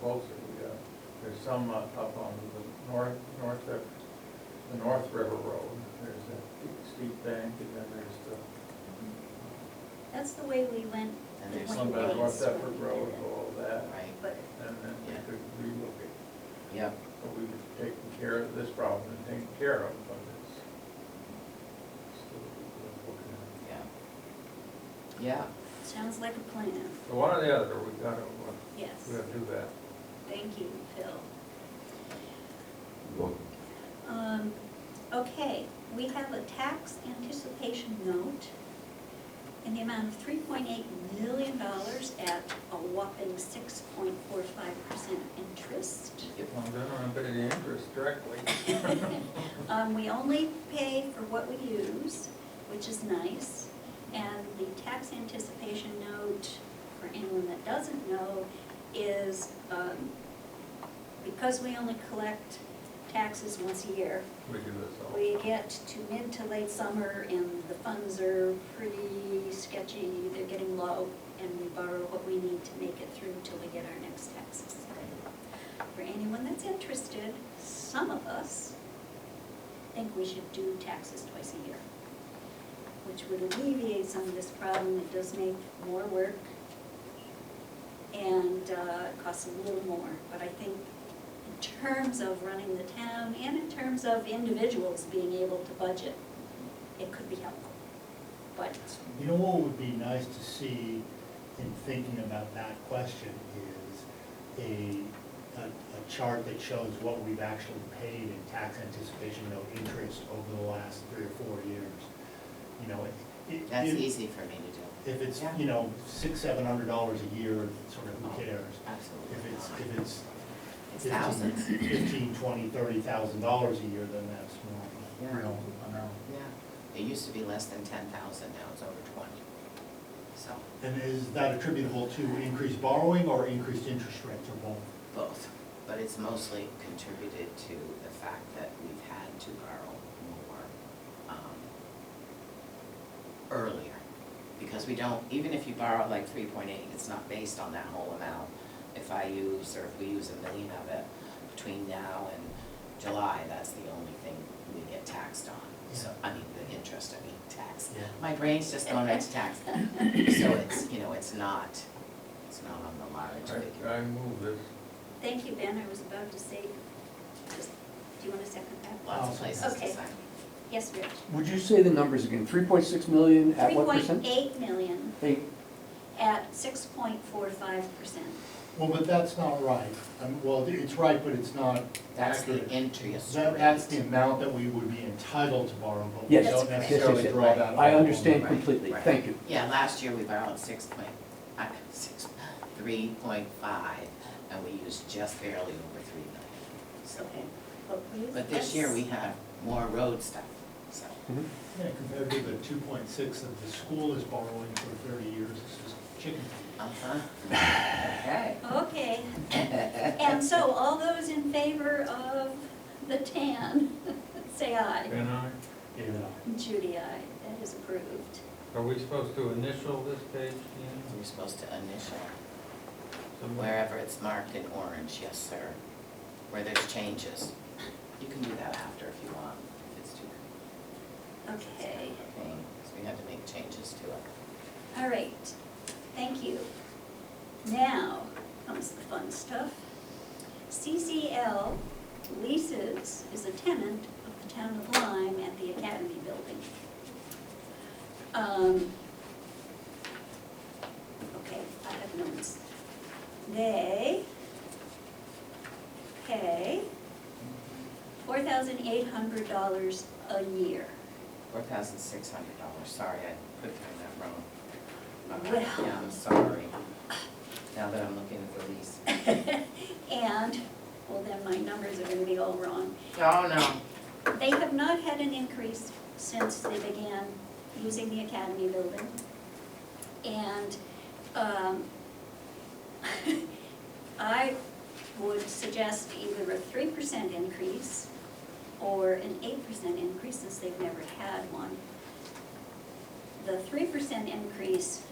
closely. Uh, There's some uh, up on the north, north of, the North River Road. There's a steep bank and then there's the, That's the way we went. And the there's one some some by bad days ones North when Deptford we did Road, it. all that. Right, But And then we Yeah. could relook at, yep, but we were taking care of this problem and taking care of, but it's still worth looking at. yeah. Yeah, sounds like a plan, So one or the other, we gotta, uh, yes. we gotta do that. Thank you, Phil. Well, Um, Okay, we have a tax anticipation note in the amount of $3.8 million at a whopping 6.45% interest. yep, I'm gonna put it in interest directly. Um, we only pay for what we use, which is nice. And the tax anticipation note, for anyone that doesn't know, is, um, because we only collect taxes once a year, We do this all. we get to mid to late summer and the funds are pretty sketchy, they're getting low, and we borrow what we need to make it through till we get our next taxes. For anyone that's interested, some of us think we should do taxes twice a year, which would alleviate some of this problem, it does make more work and uh, it costs a little more, but I think in terms of running the town and in terms of individuals being able to budget, it could be helpful. But, You know what would be nice to see in thinking about that question is a, a, a chart that shows what we've actually paid in tax anticipation note interest over the last three or four years. You know, it. it- that's it- easy for me to do. If it's, Yeah. you know, six, seven hundred dollars a year, sort of who cares? Absolutely. If it's, not. if it's It's fifteen, thousands, fifteen, twenty, thirty thousand dollars a year, then that's more, Yeah. you know, I know. yeah. It used to be less than ten thousand, now it's over twenty, so, And is that attributable to increased borrowing or increased interest rates or both? both. But it's mostly contributed to the fact that we've had to borrow more, um, earlier. Because we don't, even if you borrow like three point eight, it's not based on that whole amount. If I use, or if we use a million of it between now and July, that's the only thing we get taxed on. So, I mean, the interest, I mean, tax. Yeah. My brain's just going right to tax. So it's, you know, it's not, it's not on the large I, figure. I move this. thank you, Ben, I was about to say, just, do you want to second that? Lots of places to Okay. sign. Yes, Rich? Would you say the numbers again? Three point six million at what percent? 3.8 million Eight. at 6.45%. Well, but that's not right. Um, Well, it's right, but it's not That's the accurate. interest That- That's the rate. amount that we would be entitled to borrow, but we Yes. That's don't correct. Yes, yes, necessarily yes. draw that. out. I understand Right, completely, right. thank you. Yeah, last year we borrowed six point, uh, six, three point five, and we used just barely over three million. So, Okay, but please. but this year we have more road stuff, so, Yeah, compared to the two point six that the school is borrowing for thirty years, this is chicken. uh-huh. Okay. Okay, and so all those in favor of the tan, say aye. Can I, feed. Yeah. Judy, aye, that is approved. are we supposed to initial this page, Dean? You're supposed to initial Somebody- wherever it's marked in orange, yes, sir, where there's changes. You can do that after if you want, if it's too, it's kind Okay, of a pain, 'cause we had to make changes to it. all right, thank you. Now comes the fun stuff. CCL leases is a tenant of the town of Lyme at the Academy Building. Um, Okay, I have notes. They pay four thousand eight hundred dollars a year. Four thousand six hundred dollars, sorry, I could have that wrong. Uh, Well. Yeah, I'm sorry. Now that I'm looking at the lease. And, well, then my numbers are gonna be all wrong. Oh, no. They have not had an increase since they began using the academy building. And um, I would suggest either a three percent increase or an eight percent increase since they've never had one. The three percent increase